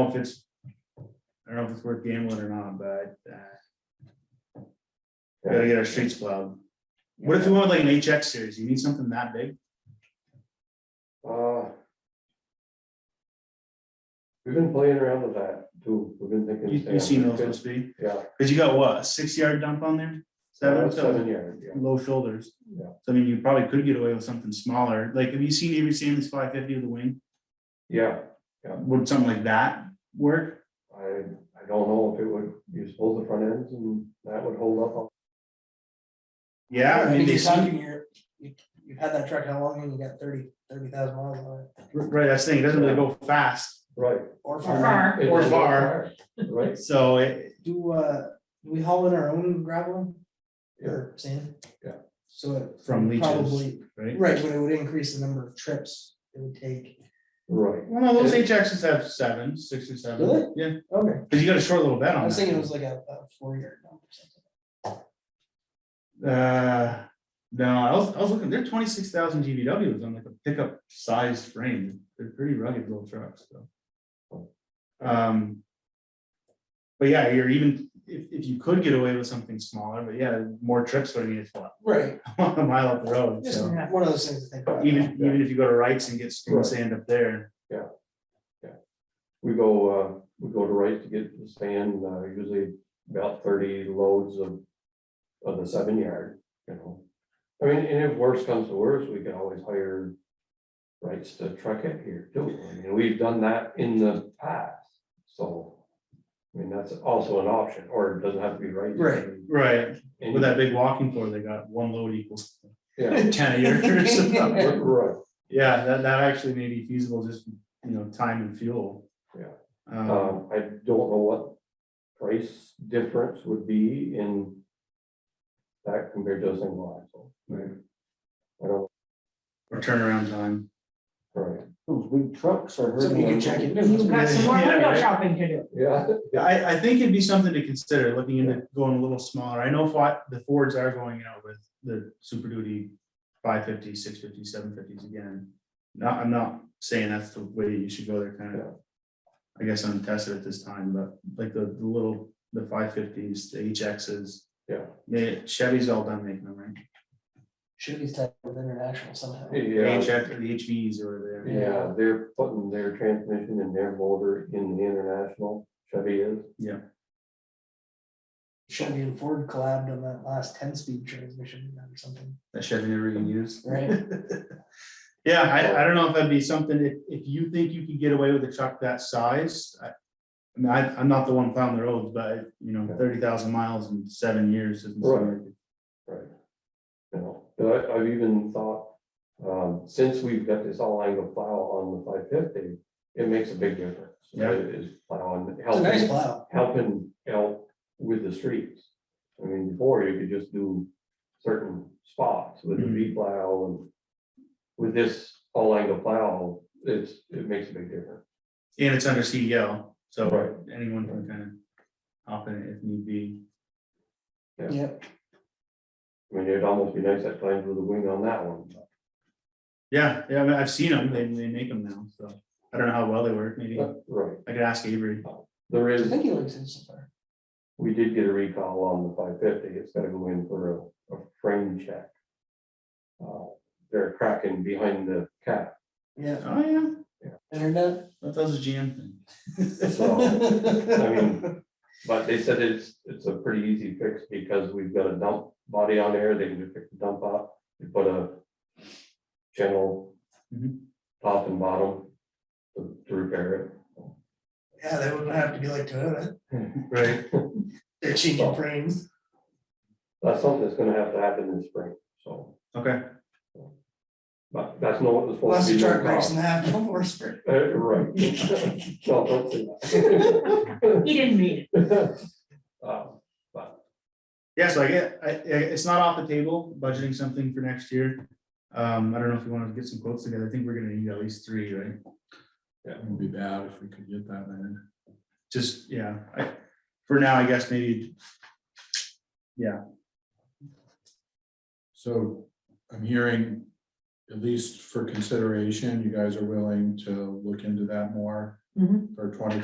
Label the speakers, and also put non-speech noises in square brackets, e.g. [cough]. Speaker 1: know if it's, I don't know if it's worth gambling or not, but, uh, we gotta get our streets plowed. What if you want like an HX series? You need something that big?
Speaker 2: Uh, We've been playing around with that too. We've been thinking.
Speaker 1: You, you've seen those must be,
Speaker 2: Yeah.
Speaker 1: cause you got what, a six yard dump on there? Seven,
Speaker 2: Seven
Speaker 1: so
Speaker 2: years, yeah.
Speaker 1: low shoulders.
Speaker 2: Yeah.
Speaker 1: So I mean, you probably could get away with something smaller. Like, have you seen Avery Sammons five fifty with the wing?
Speaker 2: Yeah,
Speaker 1: Would something like that work?
Speaker 2: I, I don't know if it would, you suppose the front ends and that would hold up.
Speaker 1: Yeah, I mean, they
Speaker 3: you're
Speaker 1: seem,
Speaker 3: talking, you're, you, you've had that truck how long and you got thirty, thirty thousand miles on it?
Speaker 1: right, that's the thing, it doesn't really go fast,
Speaker 2: Right.
Speaker 3: Or far,
Speaker 4: Far.
Speaker 1: Or far.
Speaker 2: Right,
Speaker 1: so it,
Speaker 3: do, uh, do we haul in our own gravel or sand?
Speaker 2: Yeah.
Speaker 3: So it
Speaker 1: from leeches,
Speaker 3: probably,
Speaker 1: right?
Speaker 3: right, but it would increase the number of trips it would take.
Speaker 2: right.
Speaker 1: Well, no, those HXs have seven, six or seven.
Speaker 3: Really?
Speaker 1: Yeah,
Speaker 3: Okay.
Speaker 1: cause you got a short little bed on
Speaker 3: I
Speaker 1: that.
Speaker 3: was thinking it was like a, a four yard dump or something.
Speaker 1: Uh, no, I was, I was looking, they're twenty-six thousand GVWs on like a pickup sized frame. They're pretty rugged little trucks, so. Um. But yeah, you're even, if, if you could get away with something smaller, but yeah, more trips would mean it's what,
Speaker 3: Right,
Speaker 1: [laughs] a mile up the road,
Speaker 3: just
Speaker 1: so.
Speaker 3: one of those things to think about.
Speaker 1: Even, even if you go to Wrights and get screwed sand up there,
Speaker 2: We go, uh, we go to Wright to get the sand, uh, usually about thirty loads of, of the seven yard, you know. I mean, and if worse comes to worse, we can always hire Wrights to truck it here too. I mean, we've done that in the past, so. I mean, that's also an option, or it doesn't have to be Wrights.
Speaker 3: Right.
Speaker 1: right,
Speaker 2: And-
Speaker 1: with that big walking floor, they got one load equals [laughs]
Speaker 2: Yeah,
Speaker 1: ten a year. so.
Speaker 2: right.
Speaker 1: Yeah, that, that actually may be feasible, just, you know, time and fuel.
Speaker 2: Yeah.
Speaker 1: Um,
Speaker 2: Um, I don't know what price difference would be in that compared to a single axle.
Speaker 1: Right.
Speaker 2: I don't,
Speaker 1: or turnaround time.
Speaker 2: right,
Speaker 5: Those big trucks are hurting.
Speaker 3: So we can check it.
Speaker 4: You've got some more
Speaker 1: Yeah,
Speaker 4: window
Speaker 1: right.
Speaker 4: shopping to do.
Speaker 2: yeah,
Speaker 1: I, I think it'd be something to consider, looking into going a little smaller. I know what the Fords are going out with the Super Duty 550, 650, 750s again. Not, I'm not saying that's the way you should go. They're kind of, I guess, untested at this time, but like the, the little, the five fifties, the HXs.
Speaker 2: Yeah.
Speaker 1: They- Chevy's all done making them, right?
Speaker 3: Should be tied with international somehow.
Speaker 2: yeah,
Speaker 1: HX, or the HVs or whatever.
Speaker 2: yeah, they're putting their transmission and their motor in the international Chevy is.
Speaker 3: Chevy and Ford collabed on that last ten speed transmission or something,
Speaker 1: that Chevy never even used.
Speaker 3: right?
Speaker 1: Yeah, I, I don't know if that'd be something, if, if you think you could get away with a truck that size, I. I mean, I, I'm not the one plowing the roads, but you know, thirty thousand miles in seven years. isn't something-
Speaker 2: Right. You know, but I, I've even thought, um, since we've got this all angle plow on the five fifty, it makes a big difference.
Speaker 1: Yeah.
Speaker 2: It is plowing,
Speaker 3: It's a
Speaker 2: helping.
Speaker 3: nice plow.
Speaker 2: helping out with the streets. I mean, before you could just do certain spots with a
Speaker 3: Mm-hmm.
Speaker 1: Mhm.
Speaker 2: V plow and with this all angle plow, it's, it makes a big difference.
Speaker 1: And it's under CDL, so
Speaker 2: Right.
Speaker 1: anyone can kind of hop in it if need be.
Speaker 3: Yep,
Speaker 2: I mean, it'd almost be nice at times with a wing on that one. but
Speaker 1: Yeah, yeah, I mean, I've seen them, they, they make them now, so I don't know how well they work, maybe
Speaker 2: Right,
Speaker 1: I could ask Avery.
Speaker 2: there
Speaker 3: I
Speaker 2: is,
Speaker 3: think he likes it so far.
Speaker 2: we did get a recall on the five fifty, it's gotta go in for a, a frame check. Uh, They're cracking behind the cap,
Speaker 3: Yeah,
Speaker 1: Oh, yeah,
Speaker 3: internet.
Speaker 1: that was a GM thing.
Speaker 2: so. I mean, but they said it's, it's a pretty easy fix because we've got a dump body on there, they can just pick the dump up, you put a channel
Speaker 1: Mhm.
Speaker 2: top and bottom to to repair
Speaker 3: [laughs] Yeah, they wouldn't have to be like Toyota,
Speaker 2: it.
Speaker 1: Right.
Speaker 3: they're changing frames.
Speaker 2: That's something that's gonna have to happen in spring, so,
Speaker 1: Okay,
Speaker 2: but that's not what was supposed
Speaker 3: Plus
Speaker 2: to
Speaker 3: the
Speaker 2: be.
Speaker 3: truck breaks
Speaker 2: cost.
Speaker 3: in [laughs] half, no more spare.
Speaker 2: Uh, Right. [laughs] No, don't say
Speaker 3: [laughs]
Speaker 2: that.
Speaker 4: He didn't read it.
Speaker 2: [laughs] Um,
Speaker 1: yeah, so I get, I, I- it's not off the table, budgeting something for next year. Um, I don't know if you want to get some quotes together. I think we're gonna need at least three, right?
Speaker 6: It would be bad if we could get that in.
Speaker 1: Just, yeah, I, for now, I guess maybe,
Speaker 6: So I'm hearing, at least for consideration, you guys are willing to look into that more
Speaker 4: Mhm.
Speaker 6: for twenty